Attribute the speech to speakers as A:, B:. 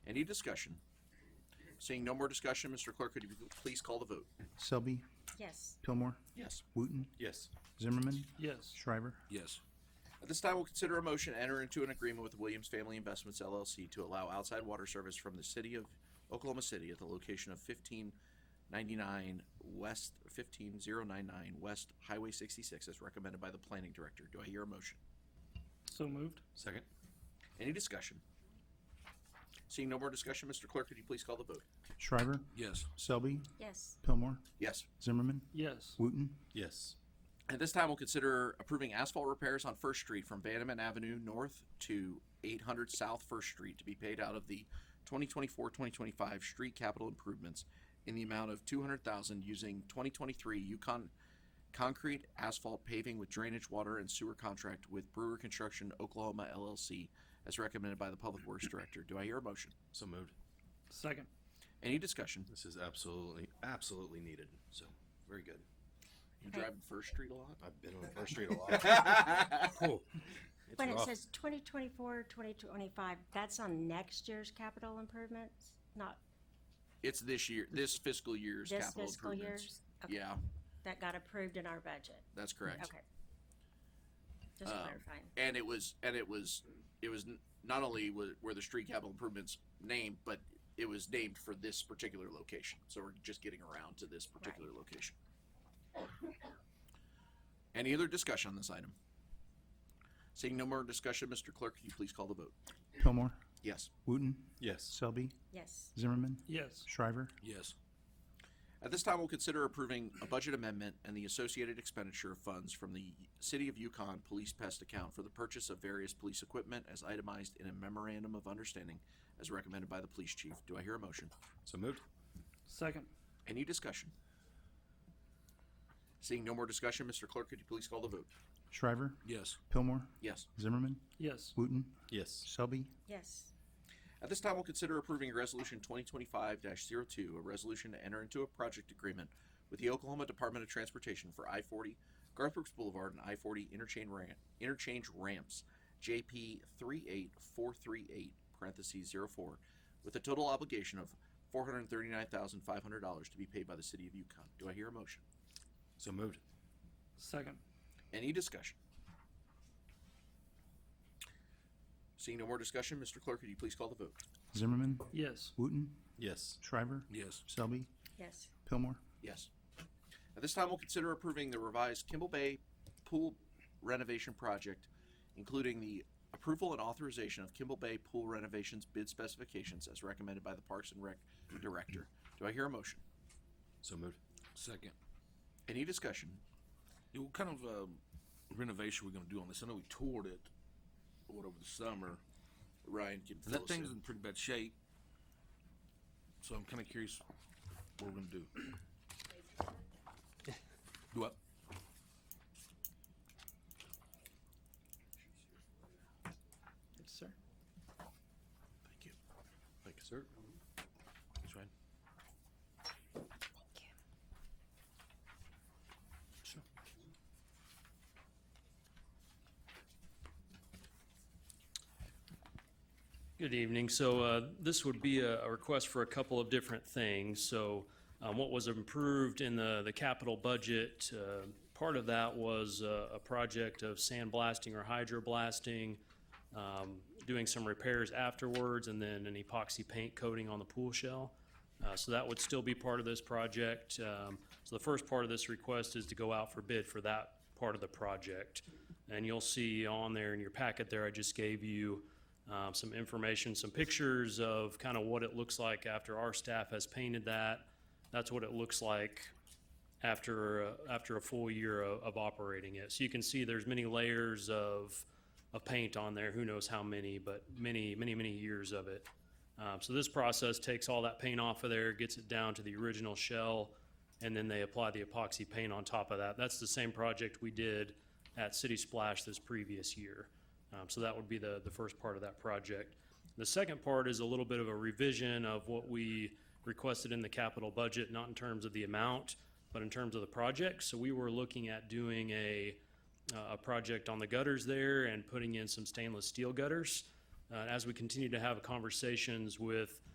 A: Any discussion? Seeing no more discussion, Mr. Clerk, could you please call the vote?
B: Selby,
C: yes,
B: Pillmore,
A: Yes.
B: Wooten,
D: Yes.
B: Zimmerman,
D: Yes.
B: Shriver.
A: Yes. At this time, we'll consider a motion to enter into an agreement with Williams Family Investments LLC to allow outside water service from the city of Oklahoma City at the location of fifteen ninety-nine West, fifteen zero nine nine West Highway sixty-six as recommended by the planning director. Do I hear a motion?
D: So moved.
A: Second. Any discussion? Seeing no more discussion, Mr. Clerk, could you please call the vote?
B: Shriver,
A: Yes.
B: Selby,
C: yes,
B: Pillmore,
A: Yes.
B: Zimmerman,
D: Yes.
B: Wooten,
D: Yes.
A: At this time, we'll consider approving asphalt repairs on First Street from Bannerman Avenue North to 800 South First Street to be paid out of the 2024-2025 street capital improvements in the amount of 200,000 using 2023 Yukon concrete asphalt paving with drainage water and sewer contract with Brewer Construction Oklahoma LLC as recommended by the Public Works Director. Do I hear a motion?
E: So moved.
D: Second.
A: Any discussion?
E: This is absolutely, absolutely needed. So very good.
A: You driving First Street a lot?
E: I've been on First Street a lot. Whew. It's
C: when it
E: rough.
C: says 2024, 2025, that's on next year's capital improvements, not
A: It's this year, this fiscal year's
C: this
A: capital
C: fiscal
A: improvements.
C: year's? Okay,
A: Yeah,
C: That got approved in our budget,
A: that's correct.
C: okay. Just
A: Um,
C: clarifying,
A: and it was and it was it was n- not only was, were the street capital improvements named but it was named for this particular location so we're just getting around to this particular location any other discussion on this item seeing no more discussion mr clerk could you please call the vote
B: Pillmore,
A: yes
B: Wooten,
E: Yes.
B: Selby,
C: yes,
B: Zimmerman,
D: Yes.
B: Shriver.
A: Yes. At this time, we'll consider approving a budget amendment and the associated expenditure of funds from the City of Yukon Police Pest Account for the purchase of various police equipment as itemized in a memorandum of understanding as recommended by the police chief. Do I hear a motion?
E: So moved.
D: Second.
A: Any discussion? Seeing no more discussion, Mr. Clerk, could you please call the vote?
B: Shriver,
A: Yes.
B: Pillmore,
A: Yes.
B: Zimmerman,
D: Yes.
B: Wooten,
E: Yes.
B: Selby,
C: yes,
A: At this time, we'll consider approving Resolution 2025-02, a resolution to enter into a project agreement with the Oklahoma Department of Transportation for I-40 Garth Brooks Boulevard and I-40 interchange ram- interchange ramps, JP 38438, parentheses 04, with a total obligation of $439,500 to be paid by the City of Yukon. Do I hear a motion?
E: So moved.
D: Second.
A: Any discussion? Seeing no more discussion, Mr. Clerk, could you please call the vote?
B: Zimmerman,
D: Yes.
B: Wooten,
E: Yes.
B: Shriver,
A: Yes.
B: Selby,
C: yes,
B: Pillmore,
A: Yes. At this time, we'll consider approving the revised Kimball Bay Pool renovation project, including the approval and authorization of Kimball Bay Pool renovations bid specifications as recommended by the Parks and Rec Director. Do I hear a motion?
E: So moved.
F: Second.
A: Any discussion?
F: Yeah, what kind of um, renovation we gonna do on this? I know we toured it what over the summer.
A: Ryan can fill
F: That
A: us
F: thing's
A: in.
F: in pretty bad shape, so I'm kind of curious what we're gonna do. do what?
D: Yes, sir.
A: Thank you.
E: Thank you, sir.
F: That's right.
G: Good evening. So uh, this would be a a request for a couple of different things. So um, what was improved in the, the capital budget, uh, part of that was uh, a project of sandblasting or hydroblasting, um, doing some repairs afterwards, and then an epoxy paint coating on the pool shell. Uh, So that would still be part of this project. Um, So the first part of this request is to go out for bid for that part of the project. And you'll see on there in your packet there, I just gave you um, some information, some pictures of kind of what it looks like after our staff has painted that. That's what it looks like after, uh, after a full year of, of operating it. So you can see there's many layers of, of paint on there, who knows how many, but many, many, many years of it. Um, so this process takes all that paint off of there, gets it down to the original shell, and then they apply the epoxy paint on top of that. That's the same project we did at City Splash this previous year. Um, so that would be the, the first part of that project. The second part is a little bit of a revision of what we requested in the capital budget, not in terms of the amount, but in terms of the project. So we were looking at doing a, uh, a project on the gutters there and putting in some stainless steel gutters. Uh, as we continue to have conversations with